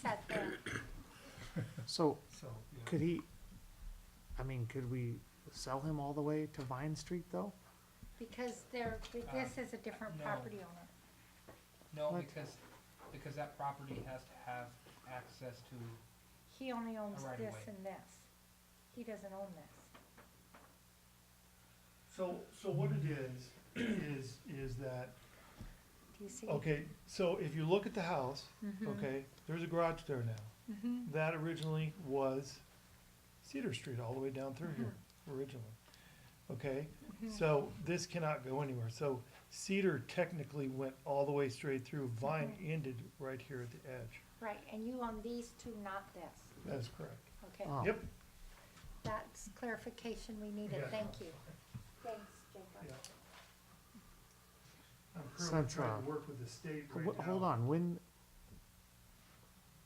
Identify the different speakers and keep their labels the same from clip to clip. Speaker 1: set there.
Speaker 2: So
Speaker 3: so, yeah.
Speaker 2: could he, I mean, could we sell him all the way to Vine Street though?
Speaker 1: Because they're, this is a different
Speaker 3: no.
Speaker 1: property owner.
Speaker 3: No,
Speaker 2: What?
Speaker 3: because, because that property has to have access to,
Speaker 1: He only owns
Speaker 3: right of
Speaker 1: this
Speaker 3: way.
Speaker 1: and this. He doesn't own this.
Speaker 4: So, so what it is, is, is that,
Speaker 1: Do you see?
Speaker 4: okay, so if you look at the house,
Speaker 1: Mhm.
Speaker 4: okay, there's a garage there now.
Speaker 1: Mhm.
Speaker 4: That originally was Cedar Street all the way down through here,
Speaker 1: Mm-hmm.
Speaker 4: originally. Okay, so this cannot go anywhere. So Cedar technically went all the way straight through. Vine ended right here at the edge.
Speaker 1: Right, and you own these two, not this.
Speaker 4: That is correct.
Speaker 1: Okay,
Speaker 2: Oh,
Speaker 4: Yep,
Speaker 1: that's clarification we needed.
Speaker 4: Yeah.
Speaker 1: Thank you. Thanks, Jacob.
Speaker 4: yeah. I'm currently
Speaker 2: Since,
Speaker 4: trying
Speaker 2: uh,
Speaker 4: to work with the state
Speaker 2: Wh-
Speaker 4: right now.
Speaker 2: Hold on, when,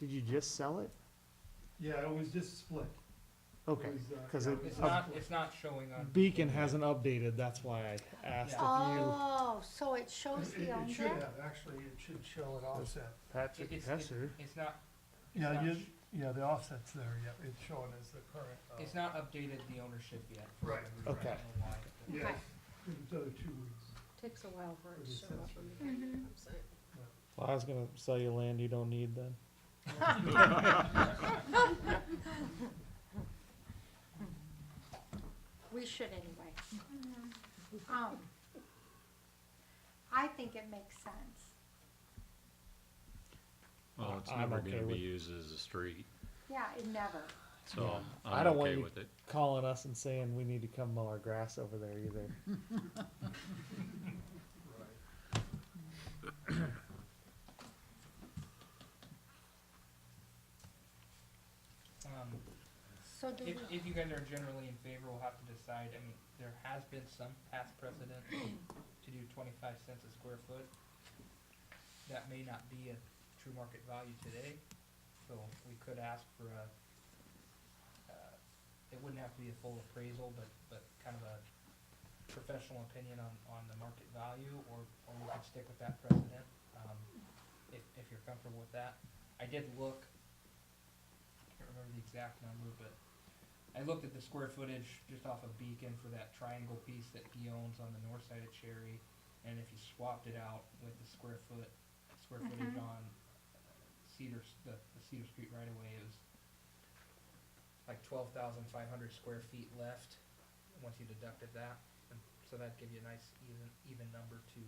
Speaker 2: did you just sell it?
Speaker 4: Yeah, it was just split.
Speaker 2: Okay,
Speaker 4: was, uh,
Speaker 2: cause
Speaker 4: yeah,
Speaker 2: it,
Speaker 3: it's
Speaker 4: Uh,
Speaker 3: not, it's not showing on.
Speaker 5: Beacon hasn't updated, that's why I asked if you,
Speaker 1: Oh, so it shows
Speaker 4: It-
Speaker 1: he
Speaker 4: It
Speaker 1: owns
Speaker 4: should
Speaker 1: it?
Speaker 4: have, actually, it should show an offset.
Speaker 2: Patrick
Speaker 3: It's- it's-
Speaker 2: Pesser,
Speaker 3: It's not, it's
Speaker 4: Yeah,
Speaker 3: not,
Speaker 4: you,
Speaker 3: sh-
Speaker 4: yeah, the offset's there, yeah, it's showing as the current. uh,
Speaker 3: it's not updated the ownership yet. for
Speaker 4: Right.
Speaker 3: whatever reason. I
Speaker 5: Okay.
Speaker 3: don't know why it doesn't.
Speaker 4: Yes, it's another two weeks.
Speaker 6: Takes a while for
Speaker 4: Or
Speaker 6: it to
Speaker 4: just
Speaker 6: show up
Speaker 4: sensor.
Speaker 6: on the bank website.
Speaker 5: well, I was gonna sell you land you don't need then.
Speaker 1: We should anyway. Um, I think it makes sense.
Speaker 7: Well, Oh, it's
Speaker 5: I'm
Speaker 7: never
Speaker 5: okay
Speaker 7: gonna be
Speaker 5: with-
Speaker 7: used as a street,
Speaker 1: Yeah, it never.
Speaker 7: so
Speaker 5: I
Speaker 7: I'm
Speaker 5: don't want
Speaker 7: okay
Speaker 5: you-
Speaker 7: with it.
Speaker 5: Calling us and saying we need to come mow our grass over there either.
Speaker 3: Um,
Speaker 1: So do
Speaker 3: if,
Speaker 1: we,
Speaker 3: if you guys are generally in favor, we'll have to decide, I mean, there has been some past precedent to do twenty-five cents a square foot. That may not be a true market value today, so we could ask for a, uh, it wouldn't have to be a full appraisal, but, but kind of a professional opinion on, on the market value, or, or we could stick with that precedent, um, if, if you're comfortable with that. I did look, I can't remember the exact number, but I looked at the square footage just off of Beacon for that triangle piece that he owns on the north side of Cherry, and if you swapped it out with the square foot, square footage
Speaker 1: Mhm.
Speaker 3: on uh, Cedar, S- the, the Cedar Street right away, it was like twelve thousand five hundred square feet left, once you deducted that, and so that'd give you a nice even, even number to,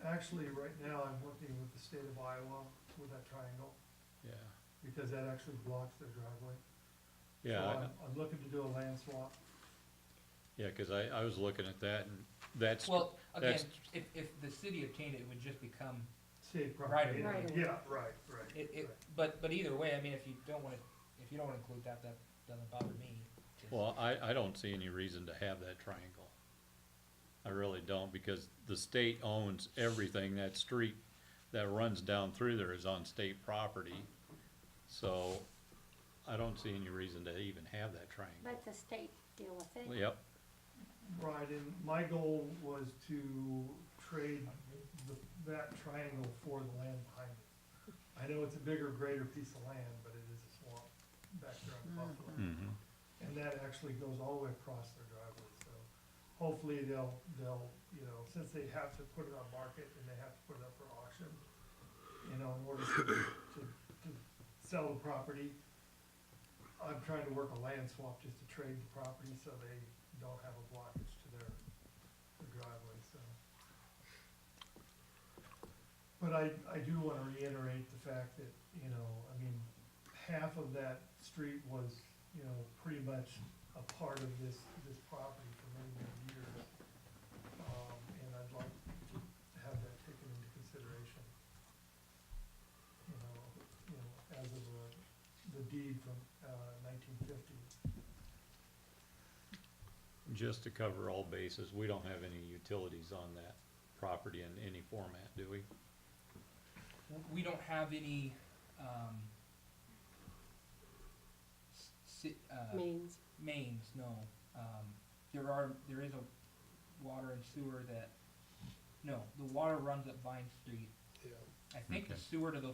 Speaker 4: Actually, right now, I'm working with the state of Iowa with that triangle,
Speaker 7: Yeah,
Speaker 4: because that actually blocks their driveway. So
Speaker 7: yeah, I-
Speaker 4: I'm, I'm looking to do a land swap.
Speaker 7: yeah, cause I, I was looking at that and that's,
Speaker 3: well, again,
Speaker 7: that's-
Speaker 3: if, if the city obtained it, it would just become
Speaker 4: State
Speaker 3: Right
Speaker 4: property.
Speaker 6: away. Right away.
Speaker 4: Yeah, right, right.
Speaker 3: It, it,
Speaker 4: right.
Speaker 3: but, but either way, I mean, if you don't wanna, if you don't wanna include that, that doesn't bother me. Just-
Speaker 7: well, I, I don't see any reason to have that triangle. I really don't, because the state owns everything, that street that runs down through there is on state property. So I don't see any reason to even have that triangle.
Speaker 1: let the state deal with it?
Speaker 7: Yep,
Speaker 4: Right, and my goal was to trade the, that triangle for the land behind it. I know it's a bigger, greater piece of land, but it is a swamp back there on Buffalo.
Speaker 7: mhm.
Speaker 4: And that actually goes all the way across their driveway, so hopefully they'll, they'll, you know, since they have to put it on market and they have to put it up for auction, you know, in order to, to, to sell the property, I'm trying to work a land swap just to trade the property so they don't have a blockage to their, their driveway, so. But I, I do wanna reiterate the fact that, you know, I mean, half of that street was, you know, pretty much a part of this, this property for many, many years. Um, and I'd like to have that taken into consideration. You know, you know, as of the, the deed from, uh, nineteen fifty.
Speaker 7: Just to cover all bases, we don't have any utilities on that property in any format, do we?
Speaker 3: w- we don't have any, um, s- si- uh,
Speaker 6: Mains.
Speaker 3: mains, no. Um, there are, there is a water and sewer that, no, the water runs up Vine Street. I think the
Speaker 7: Okay.
Speaker 3: sewer to the